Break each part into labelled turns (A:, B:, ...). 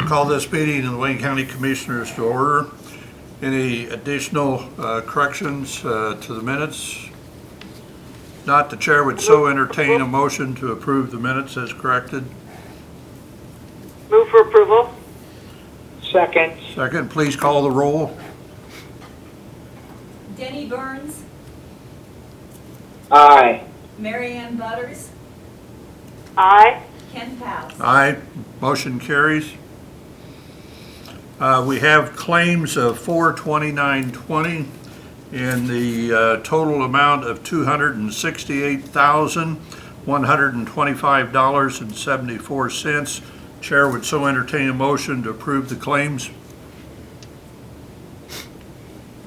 A: Call this meeting of the Wayne County Commissioners to order. Any additional uh, corrections uh, to the minutes? Not the chair would so entertain a motion to approve the minutes as corrected.
B: Move for approval? Second.
A: Second, please call the roll.
C: Denny Burns,
B: Aye.
C: Marianne Butters,
B: Aye.
C: Ken Pous.
A: Aye, motion carries. Uh, We have claims of four twenty-nine twenty in the uh, total amount of two hundred and sixty-eight thousand, one hundred and twenty-five dollars and seventy-four cents. Chair would so entertain a motion to approve the claims.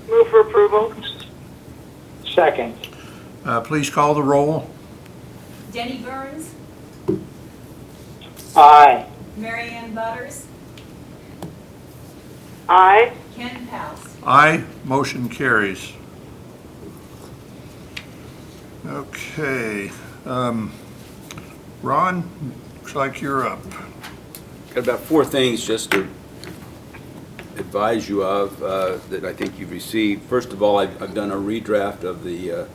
B: Move for approval? Second.
A: Uh, Please call the roll.
C: Denny Burns,
B: Aye.
C: Marianne Butters,
B: Aye.
C: Ken Pous.
A: Aye, motion carries. Okay, um, Ron, looks like you're up.
D: Got about four things just to advise you of uh, that I think you've received. First of all, I've I've done a redraft of the uh,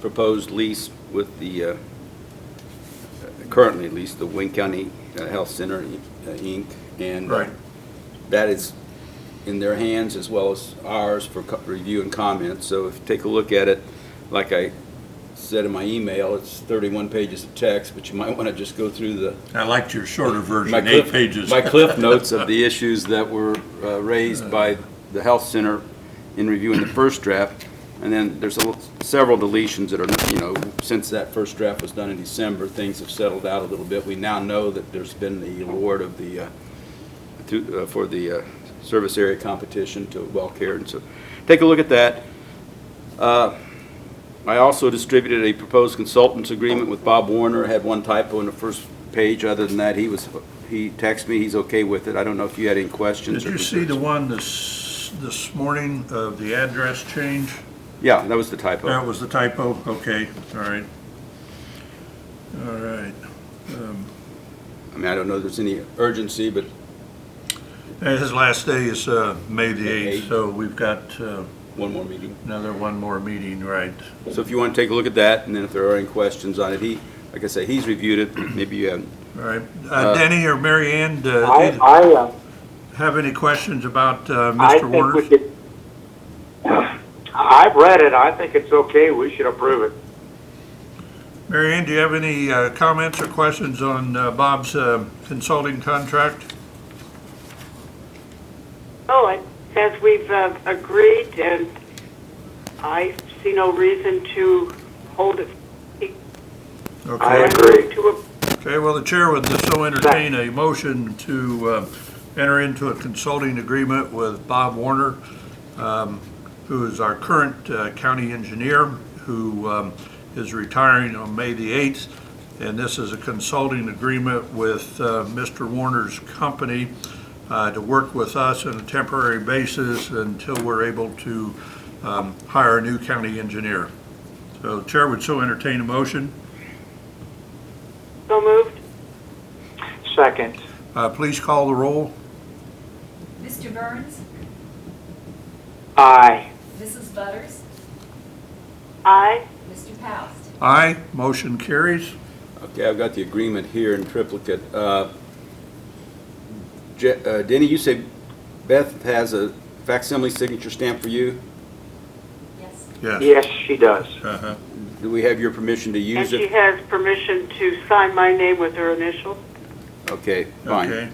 D: proposed lease with the, uh, currently at least, the Wayne County uh, Health Center, uh, Inc. And uh,
A: Right.
D: that is in their hands as well as ours for co- review and comment. So if you take a look at it, like I said in my email, it's 31 pages of text, but you might want to just go through the
A: I liked your shorter
D: my
A: version,
D: cliff- My cliff notes of the issues that were uh, raised by the health center in reviewing the first draft. And then there's a l- several deletions that are, you know, since that first draft was done in December, things have settled out a little bit. We now know that there's been the award of the, uh, to- uh, for the uh, service area competition to well Cared. And so, take a look at that. Uh, I also distributed a proposed consultants agreement with Bob Warner, had one typo in the first page. Other than that, he was, he texted me, he's okay with it. I don't know if you had any questions.
A: Did
D: or
A: you see the
D: concerns.
A: one this, this morning of the address change?
D: Yeah, that was the typo.
A: That was the typo, okay, all right. All right. Um,
D: I mean, I don't know if there's any urgency, but
A: and His last day is uh, May the
D: May
A: 8th, so we've got uh,
D: one more meeting.
A: another one more meeting, right?
D: So if you want to take a look at that, and then if there are any questions on it, he, like I say, he's reviewed it. Maybe you haven't.
A: All right, Uh,
D: Uh,
A: Denny or Mary Ann, uh,
B: I,
A: do you
B: I, uh,
A: have any questions about uh,
B: I
A: Mr.
B: think we
A: Warner's?
B: could. I've read it. I think it's okay. We should approve it.
A: Mary Ann, do you have any uh, comments or questions on uh, Bob's uh, consulting contract?
E: Oh, it says we've uh, agreed, and I see no reason to hold it.
A: Okay.
B: I agree.
E: To a-
A: Okay, well, the chair would so entertain a motion to uh, enter into a consulting agreement with Bob Warner, um, who is our current uh, county engineer, who um, is retiring on May the 8th. And this is a consulting agreement with uh, Mr. Warner's company uh, to work with us on a temporary basis until we're able to um, hire a new county engineer. So the chair would so entertain a motion.
E: So moved?
B: Second.
A: Uh, Please call the roll.
C: Mr. Burns,
B: Aye.
C: Mrs. Butters,
E: Aye.
C: Mr. Pous.
A: Aye, motion carries.
D: Okay, I've got the agreement here in triplicate. Uh, Je- uh, Denny, you say Beth has a facsimile signature stamp for you?
C: Yes.
A: Yes.
B: Yes, she does.
A: Uh-huh.
D: Do we have your permission to
E: And
D: use
E: she
D: it?
E: has permission to sign my name with her initials?
D: Okay, fine.
A: Okay.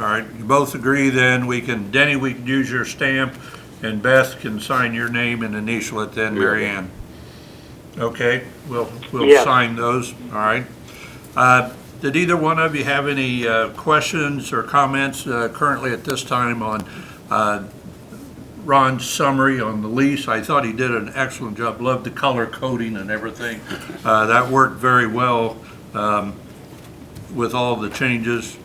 A: All right, you both agree then, we can, Denny, we can use your stamp, and Beth can sign your name and initial it then, Mary
D: Yeah.
A: Ann. Okay, we'll, we'll
B: Yes.
A: sign those, all right. Uh, Did either one of you have any uh, questions or comments uh, currently at this time on uh, Ron's summary on the lease? I thought he did an excellent job, loved the color coding and everything. Uh, That worked very well um, with all the changes.